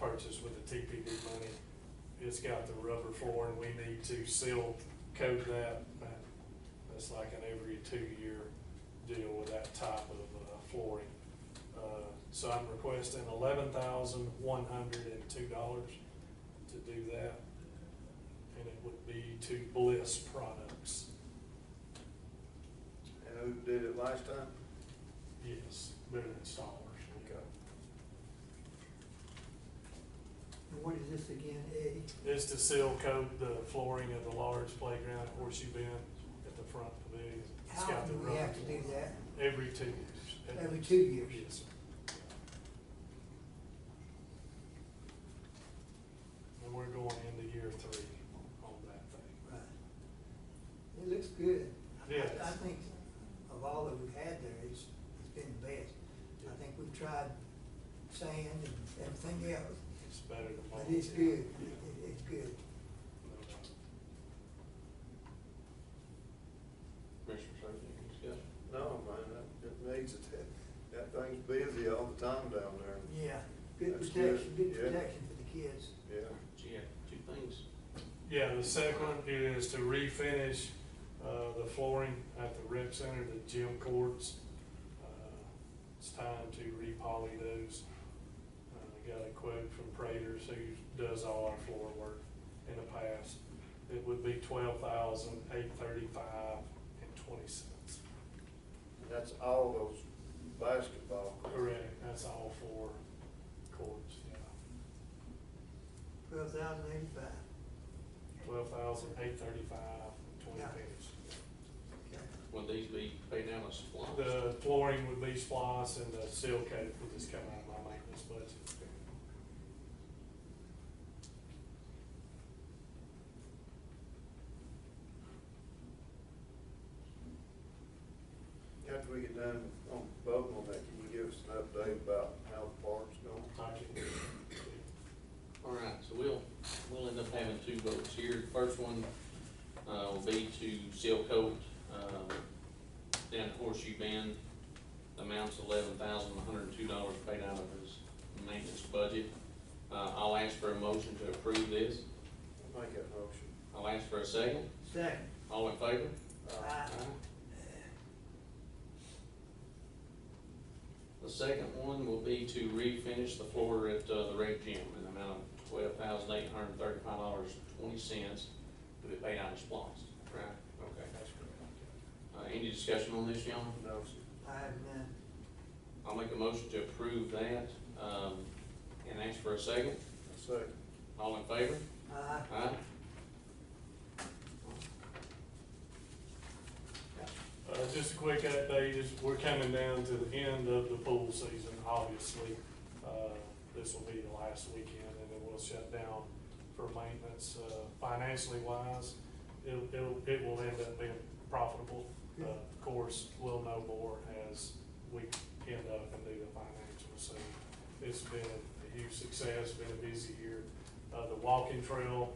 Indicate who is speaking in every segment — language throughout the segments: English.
Speaker 1: purchase with the TPD money, it's got the rubber flooring, we need to seal coat that. That's like an every two-year deal with that type of uh, flooring. Uh, So I'm requesting eleven thousand one hundred and two dollars to do that. And it would be to Bliss Products,
Speaker 2: And who did it last time?
Speaker 1: yes, they're installers.
Speaker 3: And what is this again, Eddie?
Speaker 1: It's to seal coat the flooring of the large playground at Horseshoe Bend at the front pavilion. It's
Speaker 3: How
Speaker 1: got the
Speaker 3: often do
Speaker 1: rubber.
Speaker 3: we have to do
Speaker 1: flooring.
Speaker 3: that?
Speaker 1: Every two years. at
Speaker 3: Every
Speaker 1: least.
Speaker 3: two years?
Speaker 1: Yes, sir. And we're going into year three on that thing.
Speaker 3: Right. It looks good. I-
Speaker 1: Yeah.
Speaker 3: I think of all that we've had there, it's, it's been the best. I think we've tried sand and everything else,
Speaker 1: It's better than.
Speaker 3: but
Speaker 1: most,
Speaker 3: it's
Speaker 1: yeah.
Speaker 3: good,
Speaker 1: Yeah.
Speaker 3: It- it's good.
Speaker 1: No doubt.
Speaker 4: Commissioner Safety, any discussion?
Speaker 2: No, man, that, it needs it. That thing's busy all the time down there.
Speaker 3: Yeah, good
Speaker 2: That's
Speaker 3: protection,
Speaker 2: good,
Speaker 3: good
Speaker 2: yeah.
Speaker 3: protection for the kids.
Speaker 2: Yeah.
Speaker 4: She had two things.
Speaker 1: Yeah, the second one is to refinish, uh, the flooring at the rec center, the gym courts. Uh, It's time to repoly those. Uh, I got a quote from Praters, who does all our floor work in the past. It would be twelve thousand eight thirty-five and twenty cents.
Speaker 2: That's all those basketball. courts.
Speaker 1: Correct, that's all four courts, yeah.
Speaker 3: Twelve thousand eighty-five.
Speaker 1: Twelve thousand eight thirty-five and twenty
Speaker 3: Yeah.
Speaker 1: cents.
Speaker 4: Will these be paid down as loans?
Speaker 1: The flooring would be splice and the seal coat would just come out of my maintenance budget.
Speaker 2: After we get done on voting on that, can you give us an update about how the park's going?
Speaker 1: I can-
Speaker 4: All right, so we'll, we'll end up having two votes here. The First one, uh, will be to seal coat, um, down at Horseshoe Bend. The Amount's eleven thousand, one hundred and two dollars paid out of his maintenance budget. Uh, I'll ask for a motion to approve this.
Speaker 2: I'll Make that motion.
Speaker 4: I'll ask for a second.
Speaker 3: Second,
Speaker 4: All in favor?
Speaker 1: Ah.
Speaker 2: Uh,
Speaker 4: uh-huh.
Speaker 3: Aye.
Speaker 4: The second one will be to refinish the floor at uh, the rec gym in the amount of twelve thousand eight hundred and thirty-five dollars, twenty cents to be paid out of splost. Right. Okay.
Speaker 1: That's correct.
Speaker 4: Uh, any discussion on this, y'all?
Speaker 2: No, sir.
Speaker 3: I have none.
Speaker 4: I'll make a motion to approve that, um, and ask for a second.
Speaker 2: Second.
Speaker 4: All in favor?
Speaker 3: Aye.
Speaker 4: Aye.
Speaker 1: Uh, just a quick update, is we're coming down to the end of the pool season, obviously. Uh, this will be the last weekend and then we'll shut down for maintenance, uh, financially wise. It'll, it'll, it will end up being profitable. Uh, of course, we'll know more as we end up and do the financials. So it's been a huge success, been a busy year. Uh, the walking trail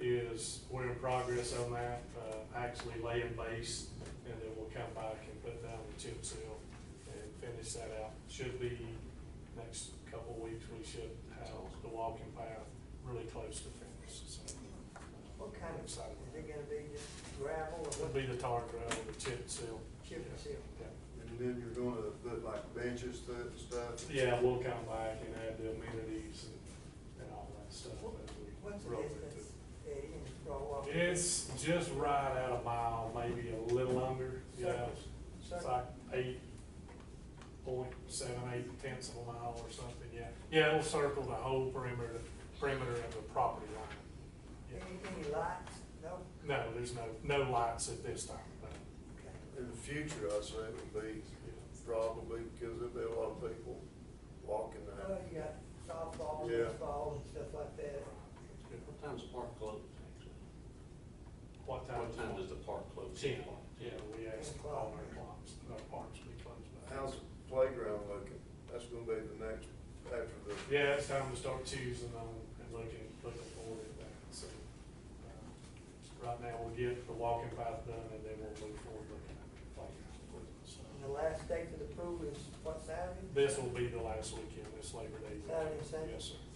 Speaker 1: is, we're in progress on that, uh, actually laying base, and then we'll come back and put down the chip seal and finish that out. Should be next couple of weeks, we should have the walking path really close to finish, so. uh,
Speaker 3: What kind of, is
Speaker 1: excited.
Speaker 3: it gonna be just gravel or
Speaker 1: It'll
Speaker 3: what?
Speaker 1: be the tar gravel, the chip seal.
Speaker 3: Chip and seal.
Speaker 1: Yeah.
Speaker 2: And then you're gonna put like benches through it and stuff?
Speaker 1: Yeah, we'll come back and add the amenities and, and all that stuff as we
Speaker 3: What's the
Speaker 1: roll
Speaker 3: distance,
Speaker 1: with
Speaker 3: Eddie, and Broad Walk?
Speaker 1: it. It's just right at a mile, maybe a little under, yeah.
Speaker 3: Circles.
Speaker 1: It's like eight point seven, eight tenths of a mile or something, yeah. Yeah, it'll circle the whole perimeter, perimeter of the property line.
Speaker 3: Any,
Speaker 1: Yeah.
Speaker 3: any lights? No?
Speaker 1: No, there's no, no lights at this time, no.
Speaker 3: Okay.
Speaker 2: In the future, I say it would be
Speaker 1: Yeah.
Speaker 2: probably because there'll be a lot of people walking
Speaker 3: Well,
Speaker 2: that.
Speaker 3: you got softball,
Speaker 2: Yeah.
Speaker 3: baseball, and stuff like that.
Speaker 4: What time's the park close, actually?
Speaker 1: What time?
Speaker 4: What time does the park close?
Speaker 1: Ten o'clock, yeah, we asked all our clocks, our parks to be closed by.
Speaker 2: How's the playground looking? That's gonna be the next, after the.
Speaker 1: Yeah, it's time to start choosing on and looking, looking forward at that, so. uh, Right now, we'll get the walking path done and then we'll move forward looking at the playground. so.
Speaker 3: And the last day for the pool is what Saturday?
Speaker 1: This will be the last weekend, this Labor Day. weekend.
Speaker 3: Saturday, Sunday?
Speaker 1: Yes, sir.